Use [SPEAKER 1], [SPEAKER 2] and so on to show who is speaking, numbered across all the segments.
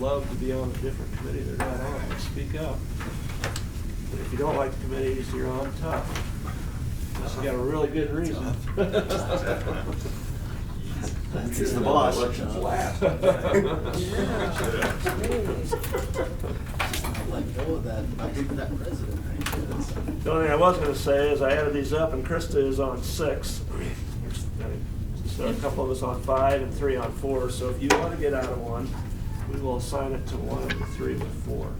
[SPEAKER 1] love to be on a different committee they're not on, speak up. But if you don't like the committees you're on, tough. Unless you got a really good reason.
[SPEAKER 2] He's the boss.
[SPEAKER 3] Elections last.
[SPEAKER 2] Let go of that, I'll give you that president. right?
[SPEAKER 1] The only thing I was gonna say is I added these up and Krista is on six. So a couple of us on five and three on four, so if you wanna get out of one, we will assign it to one of the three with four.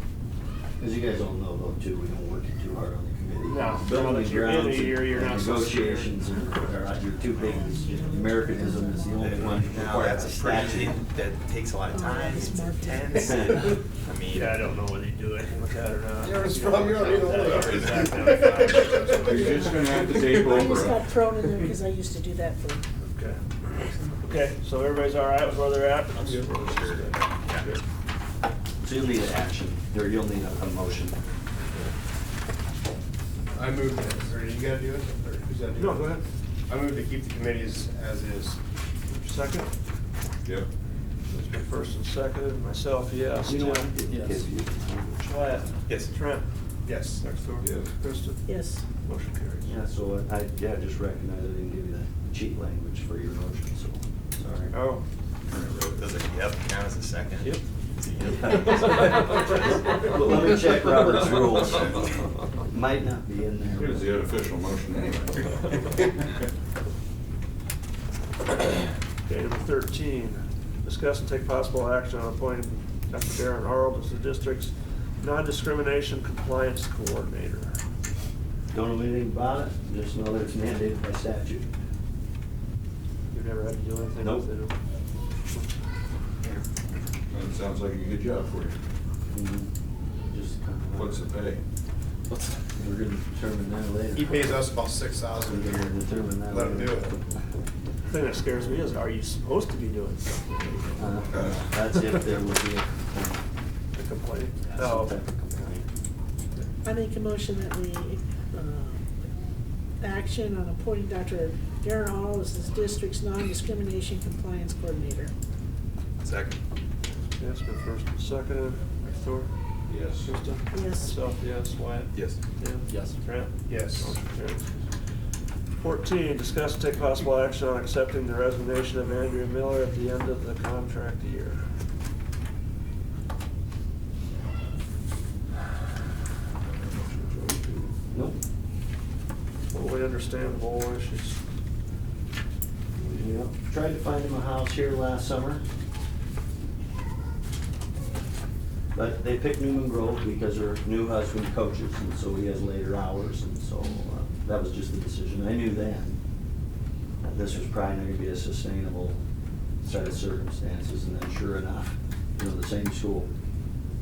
[SPEAKER 2] As you guys all know though, too, we don't work too hard on the committee.
[SPEAKER 1] No. Now that
[SPEAKER 2] Building
[SPEAKER 1] you're in it,
[SPEAKER 2] grounds and-
[SPEAKER 1] you're- you're
[SPEAKER 2] and
[SPEAKER 1] not supposed to-
[SPEAKER 2] Negotiations are, are your two big, Americanism is the only one that
[SPEAKER 3] Now,
[SPEAKER 2] requires a
[SPEAKER 3] that's a pretty,
[SPEAKER 2] statute.
[SPEAKER 3] that takes a lot of time, it's intense, and, I mean.
[SPEAKER 1] Yeah, I don't know whether you do anything with that or not.
[SPEAKER 4] You're strong, you're
[SPEAKER 1] You don't
[SPEAKER 4] already
[SPEAKER 1] work
[SPEAKER 4] the
[SPEAKER 1] out that way.
[SPEAKER 5] You're just gonna have to take
[SPEAKER 6] I just
[SPEAKER 5] over.
[SPEAKER 6] got thrown in there because I used to do that for
[SPEAKER 1] Okay, Okay. so everybody's all right with where they're at? Good.
[SPEAKER 2] So you'll need an action, or you'll need a, a motion.
[SPEAKER 4] I moved it, or you gotta do it, or who's that?
[SPEAKER 1] No, go ahead.
[SPEAKER 4] I moved to keep the committees as is.
[SPEAKER 1] Second,
[SPEAKER 5] Yep.
[SPEAKER 1] There's my first and second, and myself, yes.
[SPEAKER 2] You know what?
[SPEAKER 1] Tim?
[SPEAKER 2] Yes.
[SPEAKER 1] Wyatt?
[SPEAKER 3] Yes.
[SPEAKER 1] Trent?
[SPEAKER 4] Yes.
[SPEAKER 1] Next door.
[SPEAKER 5] Yes.
[SPEAKER 1] Kristen?
[SPEAKER 6] Yes.
[SPEAKER 1] Motion carries.
[SPEAKER 2] Yeah, so I, yeah, just recognize I didn't give you the cheat language for your motion, so, sorry.
[SPEAKER 1] Oh.
[SPEAKER 3] Does it, yep, count as a second?
[SPEAKER 1] Yep.
[SPEAKER 3] Is it
[SPEAKER 2] Well, let me check Robert's rules. Might not be in there.
[SPEAKER 5] It was the unofficial motion anyway.
[SPEAKER 1] Okay, number thirteen, discuss and take possible action on appointing Dr. Darren Harold as the district's non-discrimination compliance coordinator.
[SPEAKER 2] Don't know anything about it, just know that it's mandated by statute.
[SPEAKER 1] You've never had to do anything with it?
[SPEAKER 2] Nope.
[SPEAKER 5] That sounds like a good job for you.
[SPEAKER 2] Mm-hmm. Just kind of-
[SPEAKER 5] What's the pay?
[SPEAKER 2] We're gonna determine that later.
[SPEAKER 4] He pays us about six
[SPEAKER 2] We're
[SPEAKER 4] thousand a
[SPEAKER 2] gonna
[SPEAKER 4] year.
[SPEAKER 2] determine that
[SPEAKER 4] Let him
[SPEAKER 2] later.
[SPEAKER 4] do it.
[SPEAKER 1] The thing that scares me is, are you supposed to be doing something?
[SPEAKER 2] Uh, That's if there would be a,
[SPEAKER 1] The complaint?
[SPEAKER 2] some
[SPEAKER 1] Oh,
[SPEAKER 2] type of complaint.
[SPEAKER 6] I make a motion that we, uh, action on appointing Dr. Darren Hall as this district's non-discrimination compliance coordinator.
[SPEAKER 3] Second.
[SPEAKER 1] yes, but first and second, next door.
[SPEAKER 5] Yes.
[SPEAKER 1] Kristen?
[SPEAKER 6] Yes.
[SPEAKER 1] Myself, yes, Wyatt?
[SPEAKER 3] Yes.
[SPEAKER 1] Tim?
[SPEAKER 2] Yes.
[SPEAKER 1] Trent?
[SPEAKER 4] Yes.
[SPEAKER 1] Motion carries. Fourteen, discuss and take possible action on accepting the resignation of Andrea Miller at the end of the contract year.
[SPEAKER 2] Nope,
[SPEAKER 1] Totally understandable, why she's,
[SPEAKER 2] yep, tried to find him a house here last summer. But they picked Newman Grove because her new husband coaches, and so he has later hours, and so uh, that was just the decision. I knew then that this was probably not gonna be a sustainable set of circumstances, and then sure enough, you know, the same school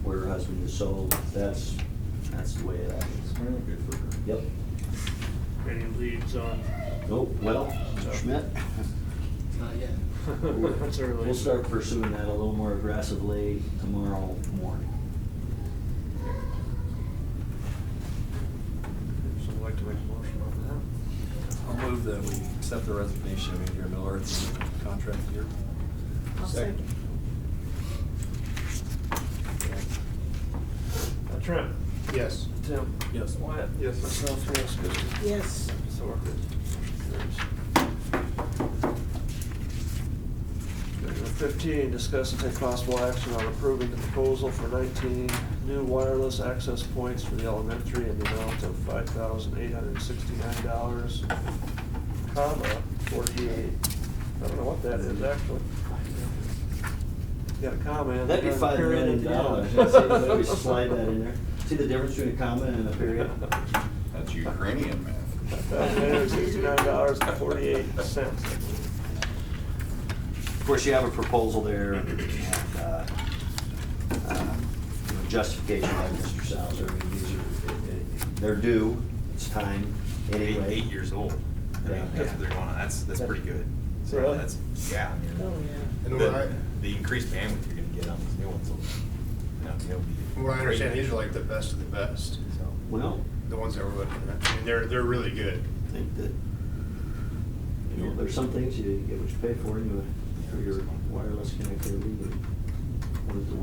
[SPEAKER 2] where her husband was sold, that's, that's the way it happens.
[SPEAKER 5] Well, Good for her.
[SPEAKER 2] Yep,
[SPEAKER 1] any leads on,
[SPEAKER 2] oh, well, Schmidt,
[SPEAKER 4] Not yet.
[SPEAKER 1] that's early.
[SPEAKER 2] we'll start pursuing that a little more aggressively tomorrow morning.
[SPEAKER 1] Someone like to make a motion on
[SPEAKER 7] I'll move that we accept the resignation of Andrea Miller at the end of the contract year.
[SPEAKER 6] I'll
[SPEAKER 4] Second.
[SPEAKER 1] that? Uh, Trent?
[SPEAKER 4] Yes.
[SPEAKER 1] Tim?
[SPEAKER 7] Yes.
[SPEAKER 1] Wyatt? Yes. Myself, yes, Kristen?
[SPEAKER 6] Yes.
[SPEAKER 1] So ordered. Number Fifteen, discuss and take possible action on approving the proposal for nineteen new wireless access points for the elementary in the amount of five thousand eight hundred and sixty-nine dollars, comma, forty-eight. I don't know what that is actually. Got a comma in there.
[SPEAKER 2] That'd be five
[SPEAKER 1] period at
[SPEAKER 2] million
[SPEAKER 1] the end.
[SPEAKER 2] dollars. Let's see, Maybe slide that in there. See the difference between a comma and a period?
[SPEAKER 5] That's Ukrainian math.
[SPEAKER 1] dollars and forty-eight cents.
[SPEAKER 2] Of course, you have a proposal there and, uh, uh, you know, justification by Mr. Salzer. I mean, these are, they're due, it's time
[SPEAKER 3] Eight,
[SPEAKER 2] anyway.
[SPEAKER 3] eight years old. I mean, that's what they're going on, that's, that's pretty good. So
[SPEAKER 1] Really?
[SPEAKER 3] that's- Yeah, I mean.
[SPEAKER 6] Oh, yeah.
[SPEAKER 4] And
[SPEAKER 3] The-
[SPEAKER 4] what I,
[SPEAKER 3] The increased bandwidth you're gonna get on these new ones will, you know, they'll be.
[SPEAKER 4] from what I understand,
[SPEAKER 3] great.
[SPEAKER 4] these are like the best of the best,
[SPEAKER 3] So,
[SPEAKER 2] Well,
[SPEAKER 4] the ones that we're looking at. I mean, they're, they're really good.
[SPEAKER 2] I think that, you know, there's some things you get what you pay for anyway, for your wireless connectivity, but what is the word?